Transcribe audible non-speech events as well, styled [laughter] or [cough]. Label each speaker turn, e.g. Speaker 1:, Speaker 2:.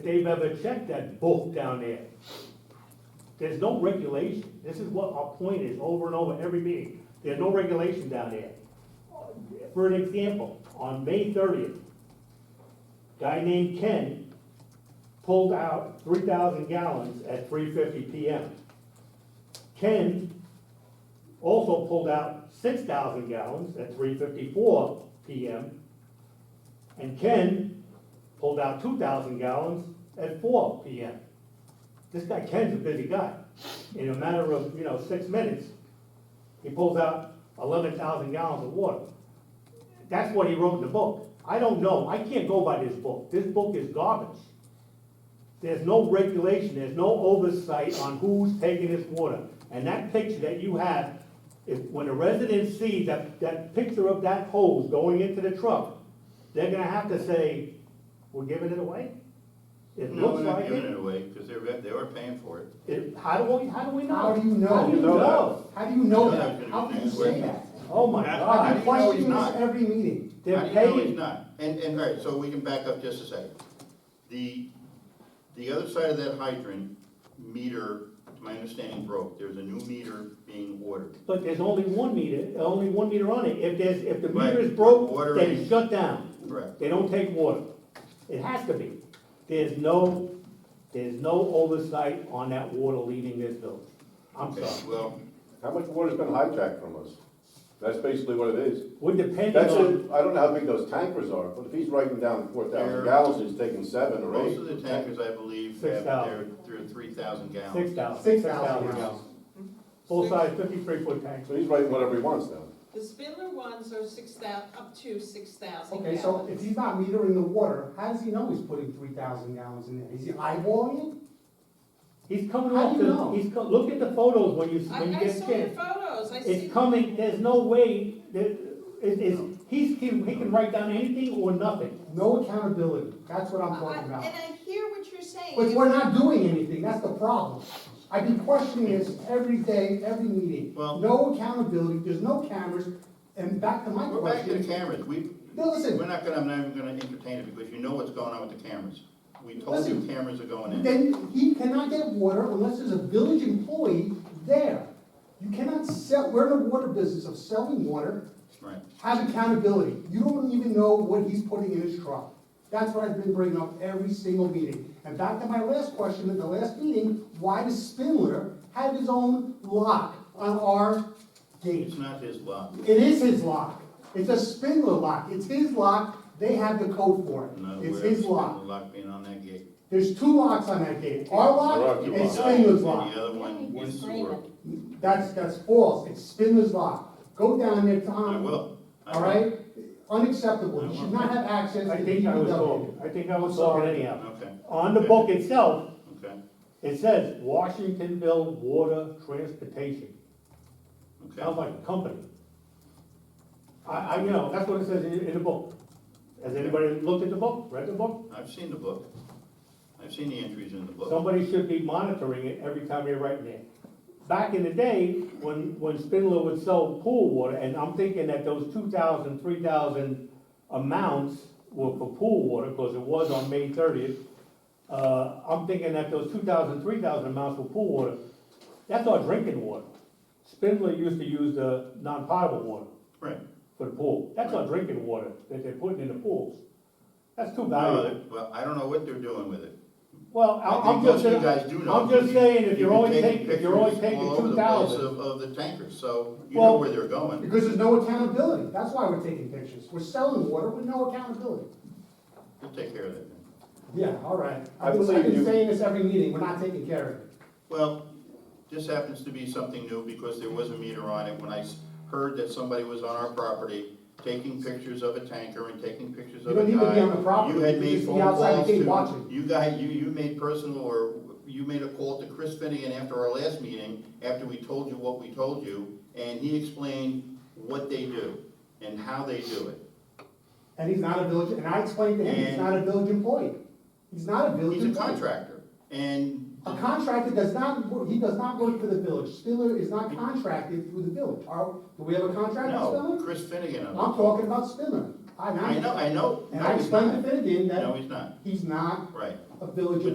Speaker 1: they've ever checked that book down there. There's no regulation, this is what our point is over and over every meeting, there's no regulation down there. For an example, on May thirtieth, guy named Ken pulled out three thousand gallons at three fifty PM. Ken also pulled out six thousand gallons at three fifty-four PM. And Ken pulled out two thousand gallons at four PM. This guy Ken's a busy guy. In a matter of, you know, six minutes, he pulls out eleven thousand gallons of water. That's what he wrote in the book. I don't know, I can't go by this book. This book is garbage. There's no regulation, there's no oversight on who's taking this water. And that picture that you have, if, when a resident sees that, that picture of that hose going into the truck, they're gonna have to say, we're giving it away? It
Speaker 2: No,
Speaker 1: looks
Speaker 2: we're not
Speaker 1: like
Speaker 2: giving it
Speaker 1: it.
Speaker 2: away, because they were, they were paying for it.
Speaker 1: It, how do we, how do we know?
Speaker 3: How do you know?
Speaker 1: How do you know?
Speaker 3: How do you know
Speaker 2: No, that's
Speaker 3: that?
Speaker 2: gonna
Speaker 3: How
Speaker 2: be
Speaker 3: can you
Speaker 2: next
Speaker 3: say
Speaker 2: week.
Speaker 3: that?
Speaker 1: Oh my
Speaker 2: How-
Speaker 1: God,
Speaker 2: how
Speaker 3: I
Speaker 2: do you know he's
Speaker 3: question
Speaker 2: not?
Speaker 3: this every meeting.
Speaker 2: How
Speaker 1: they're
Speaker 2: do you know he's
Speaker 1: paying,
Speaker 2: not? And, and, all right, so we can back up just a second. The, the other side of that hydrant meter, to my understanding, broke. There's a new meter being ordered.
Speaker 1: but there's only one meter, only one meter on it. If there's, if the
Speaker 2: Right.
Speaker 1: meter is broke,
Speaker 2: Water
Speaker 1: they
Speaker 2: is-
Speaker 1: shut down.
Speaker 2: Correct.
Speaker 1: They don't take water. It has to be. There's no, there's no oversight on that water leaving this village. I'm
Speaker 2: Okay,
Speaker 1: sorry.
Speaker 2: well,
Speaker 4: How much water's been hijacked from us? That's basically what it
Speaker 2: [laughs]
Speaker 4: is.
Speaker 1: We're depending
Speaker 4: That's
Speaker 1: on,
Speaker 4: it, I don't know how big those tankers are, but if he's writing down four
Speaker 2: They're-
Speaker 4: thousand gallons, he's taking seven or
Speaker 2: most
Speaker 4: eight.
Speaker 2: of the tankers, I believe,
Speaker 1: Six
Speaker 2: have their,
Speaker 1: thousand.
Speaker 2: their three thousand
Speaker 1: six
Speaker 2: gallons.
Speaker 1: thousand.
Speaker 3: Six thousand
Speaker 1: gallons.
Speaker 3: gallons.
Speaker 1: Full size fifty-three foot tank.
Speaker 4: So he's writing whatever he wants now.
Speaker 5: The Spindler ones are six thou, up to six thousand
Speaker 3: Okay, so if
Speaker 5: gallons.
Speaker 3: he's not metering the water, how does he know he's putting three thousand gallons in there? Is he eyeballing it?
Speaker 1: He's coming
Speaker 3: How
Speaker 1: off
Speaker 3: do you know?
Speaker 1: the, he's, co- look at the photos when you,
Speaker 5: I,
Speaker 1: when you
Speaker 5: I
Speaker 1: get a
Speaker 5: saw your
Speaker 1: chance.
Speaker 5: photos, I see.
Speaker 1: It's coming, there's no way, that, it is, he's, he he can write down anything or nothing.
Speaker 3: No accountability, that's what I'm
Speaker 5: I-
Speaker 3: talking
Speaker 5: And
Speaker 3: about.
Speaker 5: I hear what you're saying.
Speaker 3: But we're not doing anything, that's the problem. I've been questioning this every day, every meeting.
Speaker 2: Well-
Speaker 3: No accountability, there's no cameras, and back to my
Speaker 2: We're back to the
Speaker 3: question.
Speaker 2: cameras. We,
Speaker 3: No, listen.
Speaker 2: we're not gonna, I'm not even gonna entertain it, because you know what's going on with the cameras. We told you
Speaker 3: Listen.
Speaker 2: cameras are going in.
Speaker 3: Then he cannot get water unless there's a village employee there. You cannot sell, we're in the water business of selling water,
Speaker 2: Right.
Speaker 3: have accountability. You don't even know what he's putting in his truck. That's what I've been bringing up every single meeting. And back to my last question at the last meeting, why does Spindler have his own lock on our gate?
Speaker 2: It's not his lot.
Speaker 3: It is his lock. It's a Spindler lock. It's his lock. They have the code for
Speaker 2: I'm not
Speaker 3: it.
Speaker 2: aware
Speaker 3: It's
Speaker 2: of
Speaker 3: his
Speaker 2: the
Speaker 3: lock.
Speaker 2: Lock being on that gate.
Speaker 3: There's two locks on that gate. Our
Speaker 4: There are
Speaker 3: lock
Speaker 4: two
Speaker 3: and
Speaker 4: locks.
Speaker 3: Spindler's
Speaker 2: And
Speaker 3: lock.
Speaker 2: The other one is sewer.
Speaker 3: That's, that's false. It's Spindler's lock. Go down there, Tom.
Speaker 2: I will. I
Speaker 3: All
Speaker 2: will.
Speaker 3: right? Unacceptable. You should not have access to
Speaker 1: I think I was
Speaker 3: DPW.
Speaker 1: talking, I think I was
Speaker 3: Sorry.
Speaker 1: talking anyhow.
Speaker 2: Okay,
Speaker 1: On the book itself,
Speaker 2: okay,
Speaker 1: it says Washingtonville Water Transportation, sounds like
Speaker 2: okay.
Speaker 1: a company. I, I, you know, that's what it says in, in the book. Has anybody looked at the book, read the book?
Speaker 2: I've seen the book. I've seen the entries in the book.
Speaker 1: Somebody should be monitoring it every time they're writing it. Back in the day, when, when Spindler would sell pool water, and I'm thinking that those 2,000, 3,000 amounts were for pool water, because it was on May 30th, uh, I'm thinking that those 2,000, 3,000 amounts were pool water. That's our drinking water. Spindler used to use the non-potable water
Speaker 2: Right.
Speaker 1: for the pool. That's our drinking water that they're putting in the pools. That's too
Speaker 2: No,
Speaker 1: valuable.
Speaker 2: they- Well, I don't know what they're doing with it.
Speaker 1: Well, I-
Speaker 2: I
Speaker 1: I'm
Speaker 2: think
Speaker 1: just
Speaker 2: most of you
Speaker 1: saying,
Speaker 2: guys do know.
Speaker 1: I'm just saying, if
Speaker 2: You
Speaker 1: you're
Speaker 2: can
Speaker 1: only
Speaker 2: take
Speaker 1: taking, if you're only
Speaker 2: pictures
Speaker 1: taking
Speaker 2: all over
Speaker 1: two
Speaker 2: the place
Speaker 1: thousand,
Speaker 2: Of, of the tankers, so you know
Speaker 1: Well-
Speaker 2: where they're going.
Speaker 3: Because there's no accountability. That's why we're taking pictures. We're selling water with no accountability.
Speaker 2: We'll take care of that then.
Speaker 3: Yeah, all right.
Speaker 4: I
Speaker 3: I've been-
Speaker 4: believe
Speaker 3: I've been
Speaker 4: you.
Speaker 3: saying this every meeting. We're not taking care of it.
Speaker 2: Well, this happens to be something new because there was a meter on it. When I s- heard that somebody was on our property taking pictures of a tanker and taking pictures
Speaker 3: You
Speaker 2: of a
Speaker 3: don't
Speaker 2: guy.
Speaker 3: need to be on the property.
Speaker 2: You had
Speaker 3: You
Speaker 2: made
Speaker 3: just be
Speaker 2: phone
Speaker 3: outside the
Speaker 2: calls
Speaker 3: gate
Speaker 2: to-
Speaker 3: watching.
Speaker 2: You guy, you, you made personal or you made a call to Chris Finnegan after our last meeting, after we told you what we told you, and he explained what they do and how they do it.
Speaker 3: And he's not a village, and I explained to him, he's
Speaker 2: And-
Speaker 3: not a village employee. He's not a village
Speaker 2: He's a
Speaker 3: employee.
Speaker 2: contractor and
Speaker 3: A contractor does not, work- he does not work for the village. Spiller is not contracted through the village. Are, do we have a contract with
Speaker 2: no,
Speaker 3: Spiller?
Speaker 2: Chris Finnegan.
Speaker 3: I'm talking about Spiller. I,
Speaker 2: I know, I know.
Speaker 3: And
Speaker 2: No,
Speaker 3: I
Speaker 2: he's
Speaker 3: explained to
Speaker 2: not.
Speaker 3: Finnegan
Speaker 2: No,
Speaker 3: that
Speaker 2: he's not.
Speaker 3: he's not
Speaker 2: Right.
Speaker 3: a village